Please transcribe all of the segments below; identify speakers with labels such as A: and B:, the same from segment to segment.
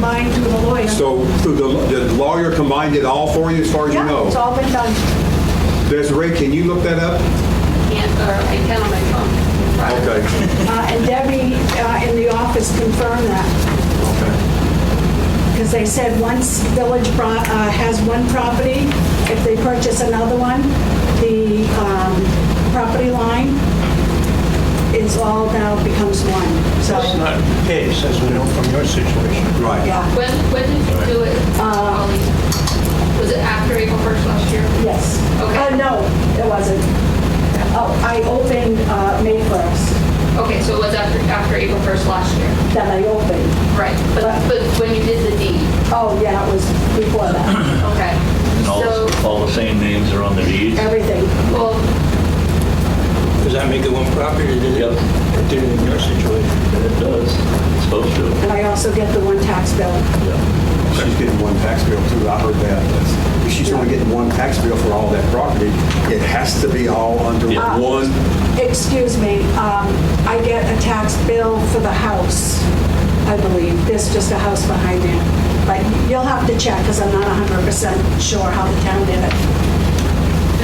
A: mine through the lawyer.
B: So through the the lawyer combined it all for you, as far as you
A: Yeah, it's
B: know?
A: all been done.
B: Desiree, can you look that up?
C: can't, or I can on my phone. Right.
B: Okay.
A: Uh, And Debbie uh, in the office confirmed that,
B: Okay.
A: because they said once Village Pro- uh, has one property, if they purchase another one, the um, property line is all now becomes one. So,
D: That's not the case, as we know from your situation.
B: Right.
A: yeah,
C: When, when did you do it, Holly? Was it after April 1st last year?
A: yes.
C: Okay.
A: Uh, No, it wasn't. Oh, I opened uh, May 1st,
C: Okay, so it was after, after April 1st last year?
A: that I opened.
C: Right. But, but when you did the deed?
A: Oh, yeah, it was before that,
C: Okay.
E: And all,
C: So,
E: all the same names are on the deeds?
A: everything.
C: well,
D: Does that make it one property? or did it-
E: Yep.
D: It did it in your situation.
E: It does, it's supposed to.
A: And I also get the one tax bill.
B: She's getting one tax bill too, I heard that. If she's only getting one tax bill for all that property, it has to be all under
E: Yeah.
B: one.
A: Ah. Excuse me, um, I get a tax bill for the house, I believe. There's just a house behind there. But you'll have to check, because I'm not 100% sure how the town did it.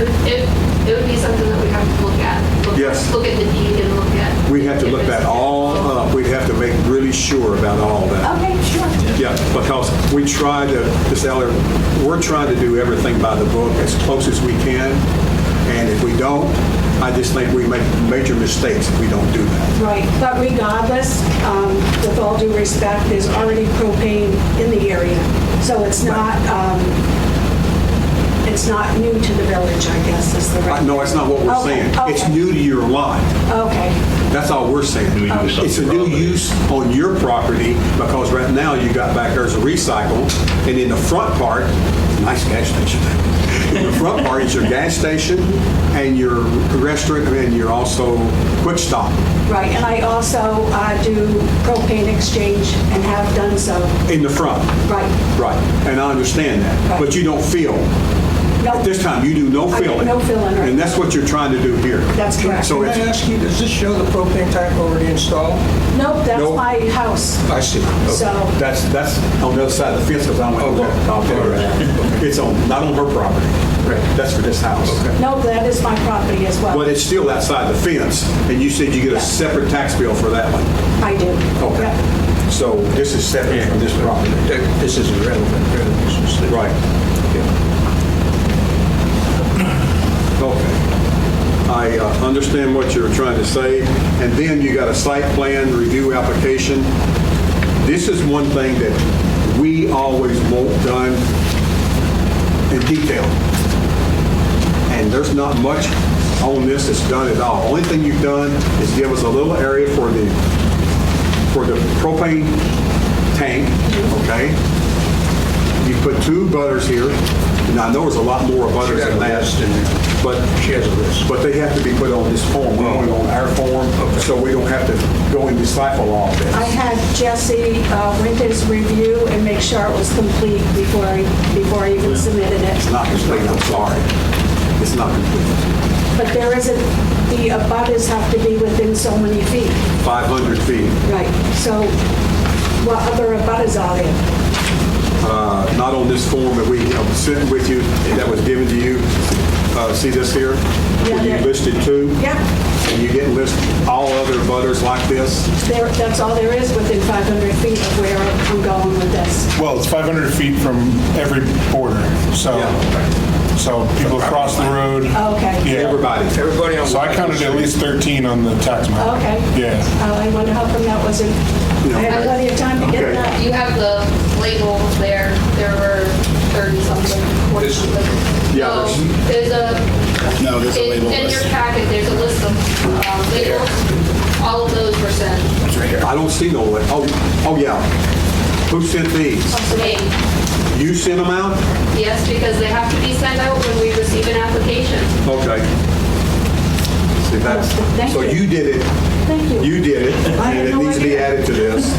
C: it, it it would be something that we have to look at. Look-
B: Yes.
C: Look at the deed and look at.
B: We have to
C: if
B: look
C: it's-
B: that all uh, up. We'd have to make really sure about all that.
A: Okay, sure.
B: Yeah, because we try to, Ms. Eller, we're trying to do everything by the book as close as we can, and if we don't, I just think we make major mistakes if we don't do that.
A: Right, but regardless, um, with all due respect, there's already propane in the area. So it's not, um, it's not new to the village, I guess, is the
B: I-
A: right.
B: No, that's not what we're
A: Okay,
B: saying. It's
A: okay.
B: new to your lot.
A: Okay,
B: That's all we're saying.
E: New use on
B: It's a
E: your
B: new
E: property.
B: use on your property, because right now you got back there's a recycle, and in the front part, nice gas station. In the front part is your gas station and your restaurant, and you're also Quick Stop.
A: right. And I also uh, do propane exchange and have done so.
B: In the front,
A: Right.
B: right. And I understand that.
A: Right.
B: But you don't feel,
A: No.
B: at this time, you do no
A: I
B: feeling.
A: get no feeling, right.
B: And that's what you're trying to do here.
A: That's correct.
B: So
D: Can I
B: it's,
D: ask you, does this show the propane tank already installed?
A: Nope, that's
B: Nope.
A: my house.
D: I see. Okay.
A: So,
B: that's, that's on the other side of the fence, because I went,
D: Okay.
B: look, I'll tell you that. It's on, not on her property.
D: Right.
B: That's for this house.
A: nope, that is my property as well.
B: But it's still outside the fence, and you said you get a separate tax bill for that one.
A: I do. Yep.
B: Okay. So this is separate from this property.
D: That- This is irrelevant, really. This is the-
B: Right. Okay. I uh, understand what you're trying to say, and then you got a site plan review application. This is one thing that we always want done in detail. And there's not much on this that's done at all. Only thing you've done is give us a little area for the, for the propane tank, okay? You put two butters here, and I know there's a lot more
D: She
B: butters
D: got a
B: than that.
D: list in there.
B: But,
D: She has a list.
B: but they have to be put on this form, we're only on our form, so we don't have to go and disciple all this.
A: I had Jesse uh, Winters review and make sure it was complete before I, before I even submitted
B: It's
A: it.
B: not complete, I'm sorry. It's not complete.
A: But there isn't, the abutters have to be within so many feet.
B: 500 feet,
A: Right. So what other abutters are there?
B: uh, not on this form that we uh, sent with you, that was given to you. Uh, See this here? Where you
A: Yeah.
B: listed two?
A: Yeah,
B: And you didn't list all other butters like this?
A: there, that's all there is within 500 feet of where I'm going with this.
F: Well, it's 500 feet from every border, so, so people cross the road.
A: Okay.
F: Yeah,
B: Everybody.
D: Everybody on...
F: so I counted at least 13 on the tax map.
A: Okay.
F: Yeah,
A: Uh, I wonder how come that wasn't, I had plenty of time to get
B: Okay.
A: that.
C: You have the label there, there were 30 something, 40
D: This-
C: something.
B: Yeah,
C: No,
B: there's-
C: There's a.
G: No, there's a
C: in-
G: label
C: In
G: list.
C: your packet, there's a list of uh, labels, all of those were sent.
B: I don't see no, li- oh, oh, yeah. Who sent these?
C: to me.
B: You sent them out?
C: Yes, because they have to be sent out when we receive an application.
B: Okay. See, that's,
A: Thank
B: so
A: you.
B: you did it,
A: Thank you.
B: you did it,
A: I
B: and
A: had
B: it
A: no
B: needs to be
A: idea.
B: added to this.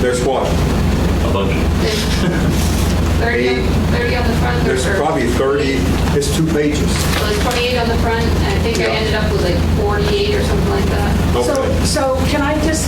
B: There's what?
E: A bunch.
C: There's 30, on- 30 on the front.
B: There's
C: or-
B: probably 30, it's two pages.
C: Well, there's 28 on the front, and I think I ended up with like 48 or something like that.
A: So,
B: Okay.
A: so can I just